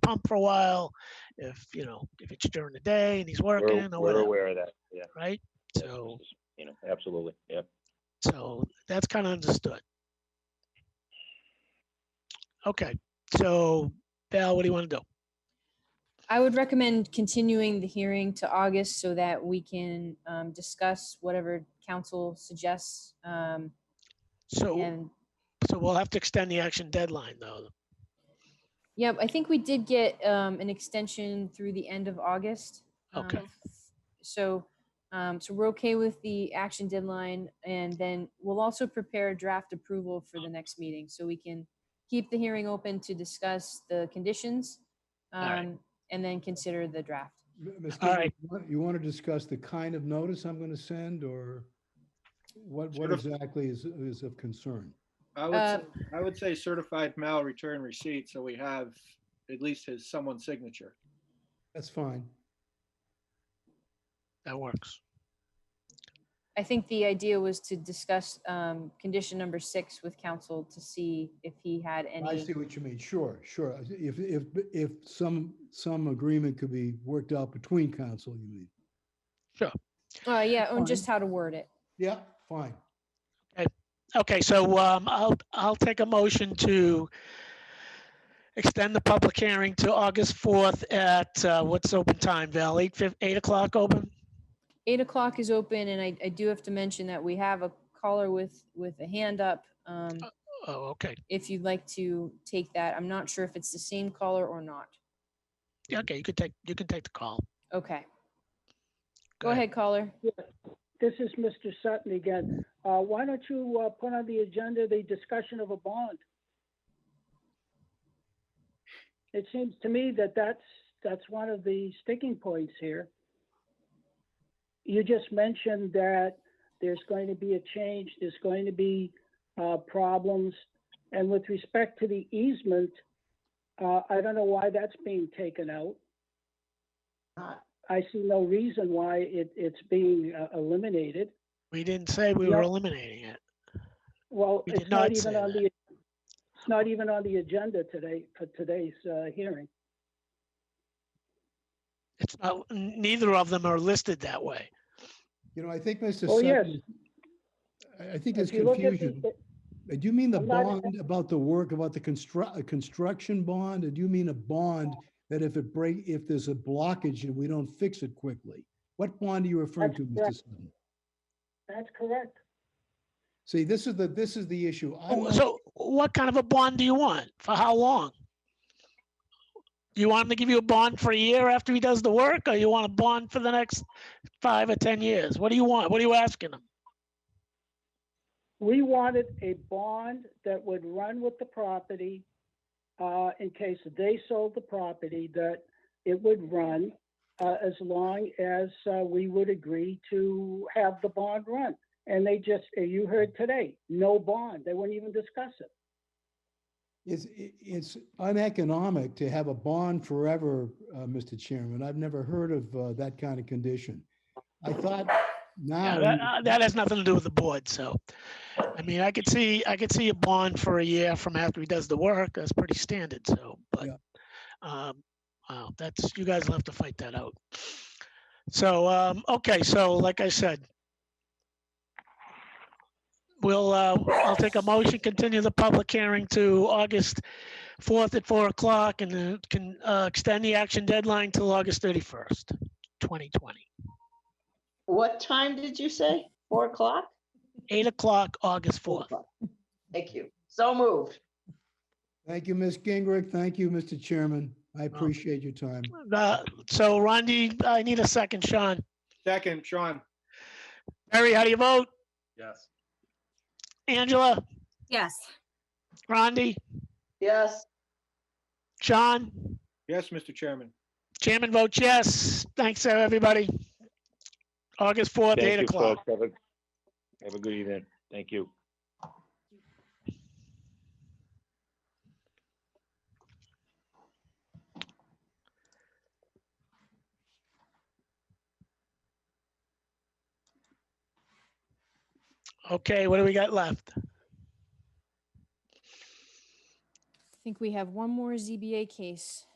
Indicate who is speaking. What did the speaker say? Speaker 1: pump for a while, if, you know, if it's during the day and he's
Speaker 2: We're,
Speaker 1: working or
Speaker 2: we're
Speaker 1: whatever,
Speaker 2: aware of that, yeah.
Speaker 1: right?
Speaker 2: yeah,
Speaker 1: So,
Speaker 2: this is, You know, absolutely, yep.
Speaker 1: so that's kind of understood. Okay, so Val, what do you want to do?
Speaker 3: I would recommend continuing the hearing to August so that we can um, discuss whatever council suggests. um,
Speaker 1: So,
Speaker 3: And,
Speaker 1: so we'll have to extend the action deadline though.
Speaker 3: yeah, I think we did get um, an extension through the end of August. um,
Speaker 1: Okay,
Speaker 3: So, um, so we're okay with the action deadline and then we'll also prepare a draft approval for the next meeting. So we can keep the hearing open to discuss the conditions
Speaker 1: right.
Speaker 3: um, and then consider the draft.
Speaker 4: Mr.
Speaker 1: All right.
Speaker 4: You want to discuss the kind of notice I'm going to send or what, what
Speaker 5: Certif-
Speaker 4: exactly is, is of concern?
Speaker 5: I would,
Speaker 3: Uh,
Speaker 5: say- I would say certified mail return receipt, so we have at least his, someone's signature.
Speaker 4: That's fine.
Speaker 1: that works.
Speaker 3: I think the idea was to discuss um, condition number six with council to see if he had
Speaker 4: I
Speaker 3: any.
Speaker 4: see what you mean. Sure, sure. If, if, if some, some agreement could be worked out between council, you mean?
Speaker 3: Oh, yeah,
Speaker 4: Fine.
Speaker 3: and just how to word it.
Speaker 4: Yeah, fine.
Speaker 1: Okay, so, um, I'll, I'll take a motion to extend the public hearing to August 4th at, uh, what's open time, Val? Eight fif, eight o'clock open?
Speaker 3: Eight o'clock is open and I, I do have to mention that we have a caller with, with a hand up. um,
Speaker 1: Oh, okay.
Speaker 3: If you'd like to take that, I'm not sure if it's the same caller or not.
Speaker 1: Yeah, Okay, you can take, you can take the call.
Speaker 3: Okay, go ahead caller.
Speaker 6: This is Mr. Sutton again. Uh, Why don't you uh, put on the agenda the discussion of a bond? It seems to me that that's, that's one of the sticking points here. You just mentioned that there's going to be a change, there's going to be uh, problems. And with respect to the easement, uh, I don't know why that's being taken out. I see no reason why it, it's being uh, eliminated.
Speaker 1: We didn't say we were
Speaker 6: Yep.
Speaker 1: eliminating it.
Speaker 6: Well,
Speaker 1: We did
Speaker 6: it's not
Speaker 1: not
Speaker 6: even
Speaker 1: say that.
Speaker 6: on the, it's not even on the agenda today, for today's uh, hearing.
Speaker 1: It's not, n- neither of them are listed that way.
Speaker 4: You know, I think Mr.
Speaker 6: Oh, yes.
Speaker 4: Sutton, I, I think there's
Speaker 6: If you look at the-
Speaker 4: confusion. Uh, Do you mean the
Speaker 6: I'm not-
Speaker 4: bond about the work, about the construct, a construction bond? Or do you mean a bond that if it break, if there's a blockage and we don't fix it quickly? What bond are you referring
Speaker 6: That's
Speaker 4: to, Mr.
Speaker 6: correct.
Speaker 4: Sutton?
Speaker 6: That's correct.
Speaker 4: See, this is the, this is the issue. I
Speaker 1: Oh,
Speaker 4: want-
Speaker 1: So what kind of a bond do you want? For how long? You want him to give you a bond for a year after he does the work, or you want a bond for the next five or 10 years? What do you want? What are you asking him?
Speaker 6: We wanted a bond that would run with the property, uh, in case they sold the property, that it would run, uh, as long as, uh, we would agree to have the bond run. And they just, uh, you heard today, no bond. They wouldn't even discuss it.
Speaker 4: It's, i- it's uneconomic to have a bond forever, uh, Mr. Chairman. I've never heard of, uh, that kind of condition. I thought
Speaker 1: Yeah,
Speaker 4: now.
Speaker 1: That uh, that has nothing to do with the board, so. I mean, I could see, I could see a bond for a year from after he does the work. That's pretty standard, so, but.
Speaker 4: Yeah.
Speaker 1: um, Wow, that's, you guys will have to fight that out. So, um, okay, so like I said. We'll, uh, I'll take a motion, continue the public hearing to August fourth at four o'clock and then can, uh, extend the action deadline till August thirty-first, twenty twenty.
Speaker 7: What time did you say? Four o'clock?
Speaker 1: Eight o'clock, August
Speaker 7: Four
Speaker 1: fourth.
Speaker 7: o'clock. Thank you. So moved.
Speaker 4: Thank you, Ms. Gingrich. Thank you, Mr. Chairman.
Speaker 1: Oh.
Speaker 4: I appreciate your time.
Speaker 1: Uh, So Rondi, I need a second. Sean,
Speaker 5: Second, Sean.
Speaker 1: Barry, how do you vote?
Speaker 5: Yes.
Speaker 1: Angela,
Speaker 8: Yes.
Speaker 1: Rondi,
Speaker 7: Yes,
Speaker 1: Sean,
Speaker 5: Yes, Mr. Chairman.
Speaker 1: chairman votes yes. Thanks, everybody. August 4th,
Speaker 2: Thank
Speaker 1: 8
Speaker 2: you,
Speaker 1: o'clock.
Speaker 2: folks. Have a, have a good evening. Thank you.
Speaker 1: Okay, what do we got left?
Speaker 3: I think we have one more ZBA case.